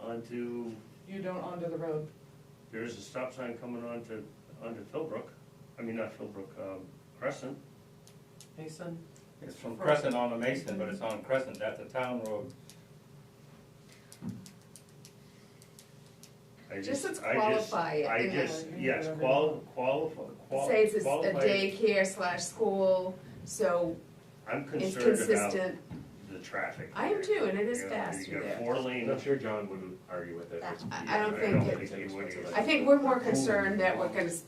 onto, You don't onto the road. there is a stop sign coming onto, onto Philbrook, I mean, not Philbrook, um, Crescent. Mason? It's from Crescent on to Mason, but it's on Crescent, that's a town road. I Just let's I just- qualify it, I you know, just, you can yes, do whatever qual, qualify, qual- Say it's a s- a qualify it. daycare slash school, so I'm it's concerned about consistent. the traffic. I am too, and it is You know, fast You through got there. four lanes. I'm sure John wouldn't argue with it. That- It's- I- I don't yeah, think it- it's I think I think we're more concerned that we're gonna s-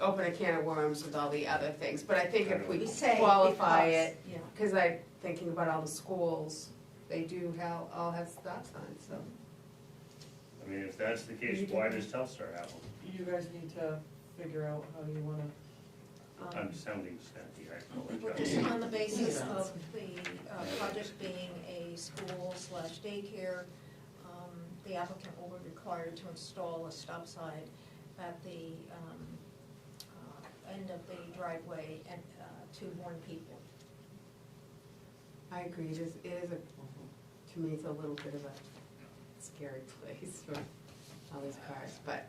open a can of worms with all the other things, but I think if we We say qualify because- it, Yeah. cause I, thinking about all the schools, they do have, all have stop signs, so. I mean, if that's the case, why does Telstar have them? You guys need to figure out how you wanna, um, I'm sounding snappy, I Well, apologize. just on the basis of the uh, project being a school slash daycare, um, the applicant will be required to install a stop sign at the um, uh, end of the driveway and uh, to warn people. I agree, it is, it is a, to me, it's a little bit of a scary place for all these cars, but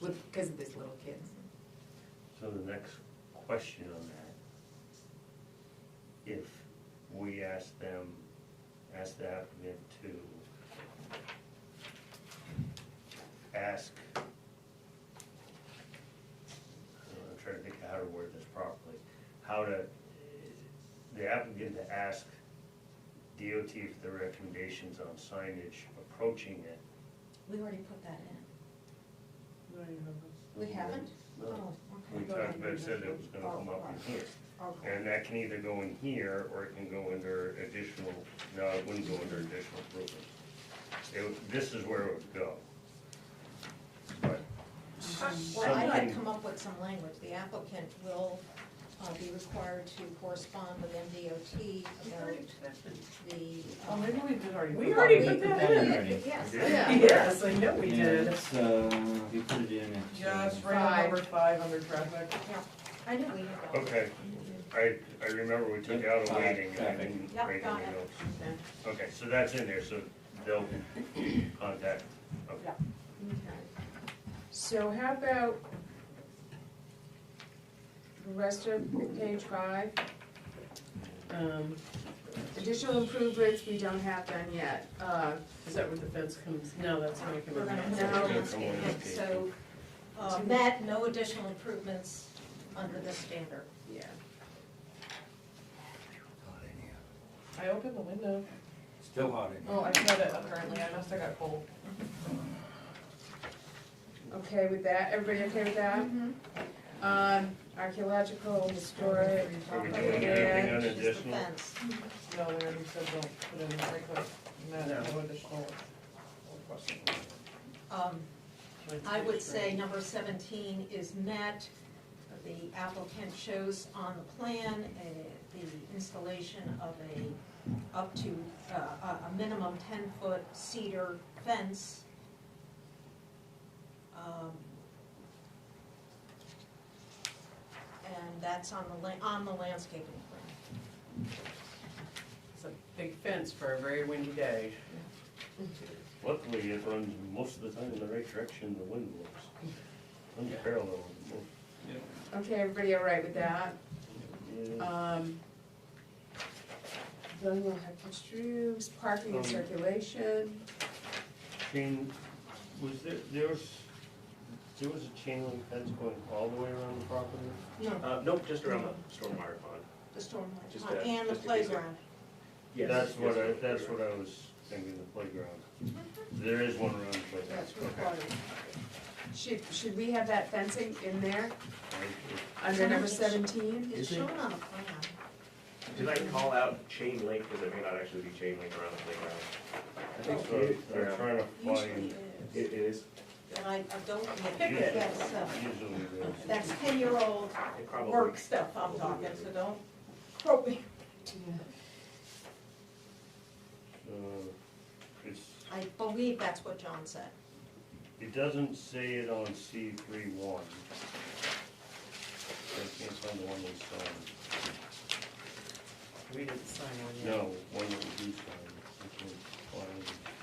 with, because of these little kids. So the next question on that, if we ask them, ask the applicant to ask, I don't know, I'm trying to think of how to word this properly, how to, the applicant to ask DOT for the recommendations on signage approaching it. We already put that in. no, you have We haven't? No. Oh, We okay. talked about, it, said it was gonna come up in here. Okay. And that can either go in here, or it can go under additional, no, it wouldn't go under additional improvement. It, would- this is where it would go. But Well, I'd like something- to come up with some language. The applicant will uh, be required to correspond with MDOT about the. Oh, um, maybe we did already. We already we- put that in. Yes. Yeah. Yes, I know we Yeah, did. it's, uh, you put it in, it's, Yeah, uh, it's right on Five. number five under traffic. Yeah, I know we have that. Okay, I, I remember we took out a waiting, and I didn't Yep, write got any it. notes. Okay. Okay, so that's in there, so they'll contact, okay. So how about the rest of page five? Um, Additional improvements, we don't have done yet. Uh, is that where the fence comes? No, that's not We're coming gonna in. move No. on to landscaping. so, uh, met, no additional improvements under this standard. yeah. I opened the window. Still hot in here. Oh, I shut it apparently. I must have got cold. Okay with that? Everybody okay with that? Um, archaeological, historic. Are we doing Yeah. anything on It's just the additional? fence. No, they already said don't put in the breaker. No, no additional request. Um, I would say number seventeen is met. The applicant shows on the plan uh, the installation of a, up to, uh, a a minimum ten-foot cedar fence. Um, And that's on the, la- on the landscaping plan. It's a big fence for a very windy day. Luckily, it runs most of the time in the right direction, the wind blows. Runs parallel. Okay, everybody all right with that? Yeah. Um, Then we'll have construes, parking and circulation. Chain, was there, there was, there was a chain link fence going all the way around the property? No, Uh, nope, just around the stormwater pond. the stormwater, Just pond a- and the just a piece of- playground. Yes, That's what yes, I, that's what I was thinking, the playground. There is one around the playground. That's required. Should, should we have that fencing in there Okay. under number seventeen? It's Is it- shown on the plan. Did I call out chain link, because it may not actually be chain link around the playground? I think so, they're trying to Usually find, It it is. is, And I, I don't, Picket. yes, uh, usually there's. that's ten-year-old it probably. work stuff I'm talking, so don't quote me. Uh, It's, I believe that's what John said. it doesn't say it on C three one. I can't find the one that's signed. We didn't sign on yet. No, one that we do sign. I can't find.